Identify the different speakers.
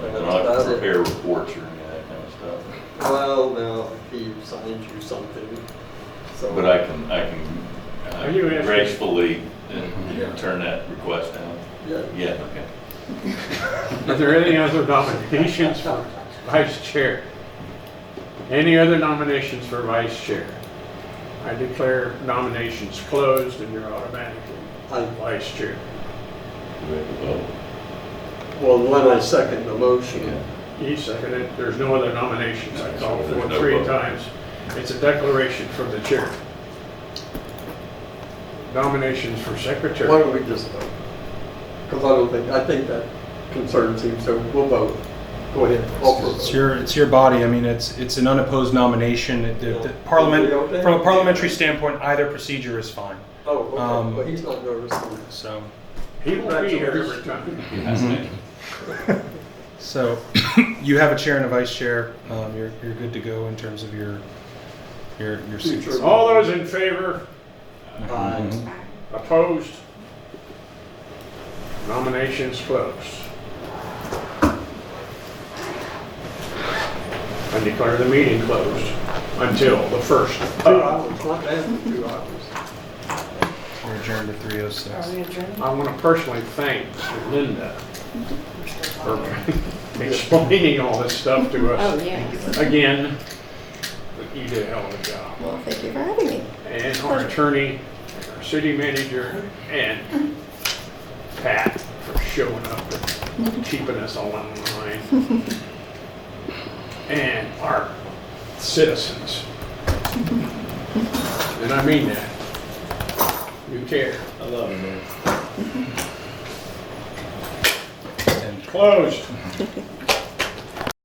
Speaker 1: it-
Speaker 2: prepare reports or any of that kind of stuff.
Speaker 1: Well, no, he signed you something, so.
Speaker 2: But I can, I can
Speaker 3: Are you
Speaker 2: uh,
Speaker 3: asking-
Speaker 2: gracefully uh, turn that request down.
Speaker 1: Yeah,
Speaker 2: Yeah, okay.
Speaker 3: Are there any other nominations for vice chair? Any other nominations for vice chair? I declare nominations closed and you're automatically
Speaker 1: I,
Speaker 3: vice chair.
Speaker 2: We have to vote.
Speaker 1: well, then I second the motion.
Speaker 2: Yeah.
Speaker 3: He seconded, it. there's no other nominations, I called for it
Speaker 2: No
Speaker 3: three
Speaker 2: vote.
Speaker 3: times. It's a declaration from the chair. Nominations for
Speaker 1: Why
Speaker 3: secretary.
Speaker 1: don't we just vote? Because I don't think, I think that concerns him, so we'll vote. Go ahead, call for a
Speaker 4: It's
Speaker 1: vote.
Speaker 4: your, it's your body. I mean, it's, it's an unopposed nomination. It- the- the Parliament, from a parliamentary standpoint, either procedure is fine.
Speaker 1: Oh, okay,
Speaker 4: um,
Speaker 1: but he's not noticing.
Speaker 4: So,
Speaker 3: He will be here every time.
Speaker 2: That's it.
Speaker 4: so you have a chair and a vice chair. Um, you're, you're good to go in terms of your, your, your seats.
Speaker 1: Future.
Speaker 3: All those in favor,
Speaker 1: Aye.
Speaker 4: Mm-hmm.
Speaker 3: opposed? Nominations closed. I declare the meeting closed until the first. Uh,
Speaker 1: Two hours, not bad for two hours.
Speaker 4: We're adjourned at three oh
Speaker 5: Are
Speaker 4: six.
Speaker 5: we adjourned?
Speaker 3: I want to personally thank Linda for explaining all this stuff to us.
Speaker 5: Oh, yes.
Speaker 3: again, but you did a hell of a job.
Speaker 5: Well, thank you for having me.
Speaker 3: And our attorney, and our city manager, and Pat for showing up and keeping us all in line. And our citizens. And I mean that. You care.
Speaker 2: I love it, man.
Speaker 4: And
Speaker 3: Closed.